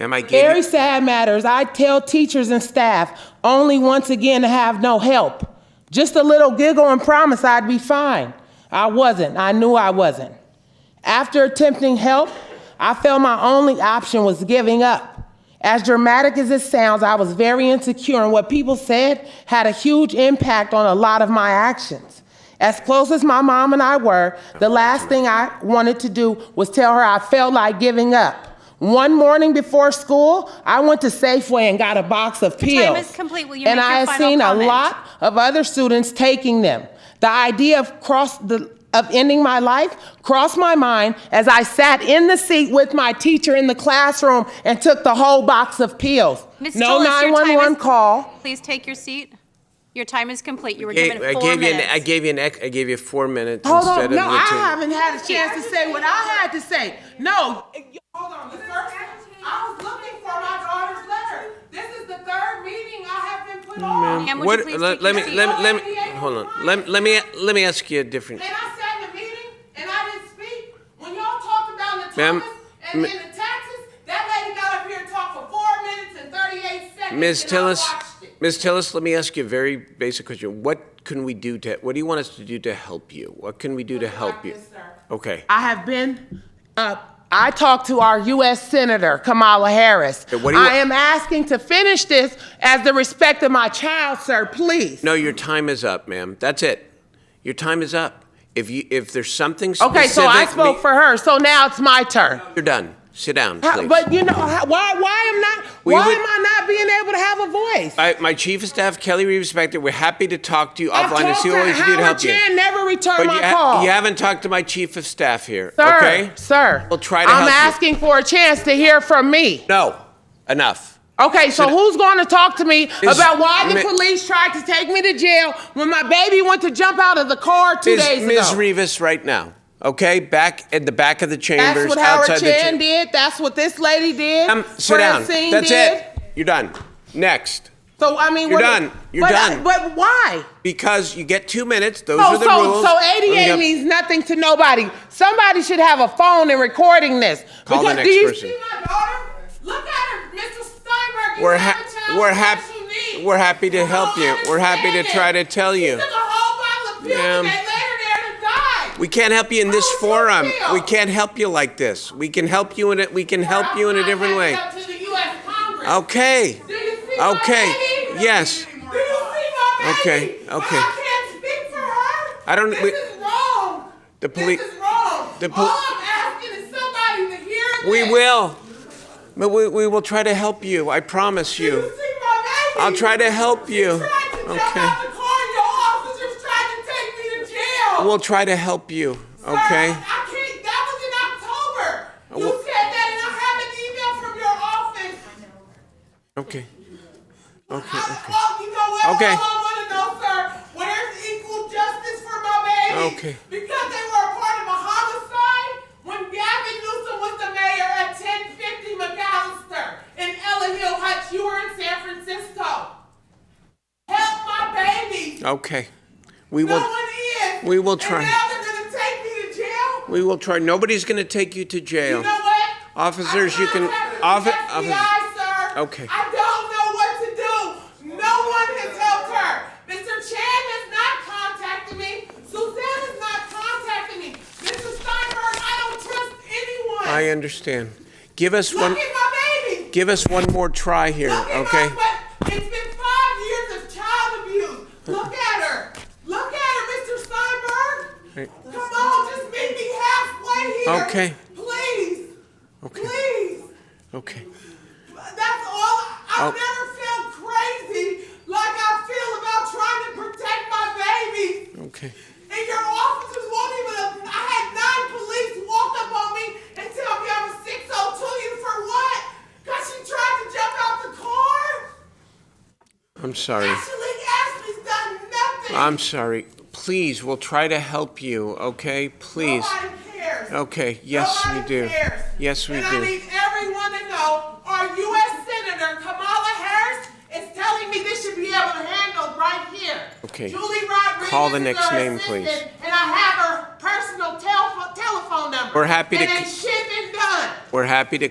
Am I getting Very sad matters. I tell teachers and staff only once again to have no help. Just a little giggle and promise I'd be fine. I wasn't. I knew I wasn't. After attempting help, I felt my only option was giving up. As dramatic as it sounds, I was very insecure, and what people said had a huge impact on a lot of my actions. As close as my mom and I were, the last thing I wanted to do was tell her I felt like giving up. One morning before school, I went to Safeway and got a box of pills. is complete. Will you and make your I had final seen a comment? lot of other students taking them. The idea of cross the of ending my life crossed my mind as I sat in the seat with my teacher in the classroom and took the whole box of pills. Ms. no Tillis, your time 911 is- call. Please take your seat. Your time is complete. You were Hey, given I four gave you an, minutes. I gave you an ex, I gave you four minutes Hold instead on. of No, the I two. haven't had a chance to say what I had to say. No. Hold on. The first, I was looking for my daughter's letter. This is the third meeting I have been put on. Ma'am, would you What, please let, take let your me seat? let me let me hold on. Let, let me let me ask you a different. And I sat in the meeting and I didn't speak. When y'all talked about the Ma'am, Thomas and m- then the taxes, that lady got up here and talked for four minutes and thirty-eight seconds. Ms. and I Tillis, watched it. Ms. Tillis, let me ask you a very basic question. What can we do to, what do you want us to do to help you? What can we do to help you? this, sir. Okay. I have been, uh, I talked to our U.S. Senator Kamala Harris. Okay, what do you I want- am asking to finish this as the respect of my child, sir, please. No, your time is up, ma'am. That's it. Your time is up. If you, if there's something specific. Okay, so I spoke me- for her, so now it's my turn. You're done. Sit down, How- please. But you know, how- why, why am not, We why would- am I not being able to have a voice? I, my chief of staff, Kelly Reeves, back there, we're happy to talk to you I've offline and talked see what to we can do to Howard help you. Chan, never returned But my you ha- call. You haven't talked to my chief of staff here, Sir, okay? sir. We'll try to I'm help you. asking for a chance to hear from me. No, enough. Okay, so who's going to talk to me Is- about why the Mi- police tried to take me to jail when my baby went to jump out of the car two Ms. days Ms. ago? Rivas right now, okay? Back at the back of the chambers, That's what outside Howard the Chan cha- did. That's what this lady did. Um, sit down. Francine That's did. it. You're done. Next. So I mean, You're what done. You're but, uh, done. But why? Because you get two minutes. Those So are the so rules. Oh, so Let me ADA go- means nothing to nobody. Somebody should have a phone and recording this. Call the Because- next do you person. see my daughter? Look at her, Mr. Steinberg. You We're have ha- a child we're with hap- special needs. we're happy to You help don't you. We're happy to understand try to it. tell She you. took a whole bottle of pills Ma'am. and they laid her there to die. We can't help you in this How is that forum. fair? We can't help you like this. We can help you in it. We can help you in a different way. Up to the U.S. Congress. Okay. Do you see my Okay. baby? Yes. Do you see my baby? Okay, okay. But I can't speak for her. I don't- This we- is wrong. The poli- This is wrong. the All poli- I'm asking is somebody to hear We this. will. But we, we will try to help you. I promise Do you see you. my baby? I'll try to help you. She tried to jump Okay. out the car. Your officers tried to take me to jail. We'll try to help you. Sir, Okay. I can't. That was in October. You Well- said that, and I have an email from your office. Okay. I, well, you know what? Okay. All I want to know, sir, where's equal justice for my baby? Okay. Because they were a part of a homicide when Gavin Newsom was the mayor at 1050 McAllister in Ella Hill Heights. You were in San Francisco. Help my baby. Okay. We No will. one is. Uh, we will try. And now they're going to take me to jail. We will try. Nobody's going to take you to jail. You know what? Officers, I'm you can- not offi- happy with the officer- FBI, sir. Okay. I don't know what to do. No one has helped her. Mr. Chan has not contacted me. Suzanne has not contacted me. Mr. Steinberg, I don't trust anyone. I understand. Give us Look one. at my baby. Give us one more try here. Look at Okay. my, but it's been five years of child abuse. Look at her. Look at her, Mr. Steinberg. Right. Come on, just meet me halfway here. Okay. Please. Okay. Please. Okay. That's all. Oh. I've never felt crazy like I feel about trying to protect my baby. Okay. And your officers won't even. I had nine police walk up on me and tell me I'm a 602 you for what? Because she tried to jump out the car? I'm sorry. Actually, Ashley's done nothing. I'm sorry. Please, we'll try to help you. Okay. Please. Nobody cares. Okay, yes, we Nobody do. Cares. Yes, we and do. I need everyone to know our U.S. Senator Kamala Harris is telling me this should be able to handle right here. Okay. Julie Rodriguez. Call the is next our name, assistant, please. And I have her personal telephone telephone number. We're happy to And c- ain't shit been done. We're happy to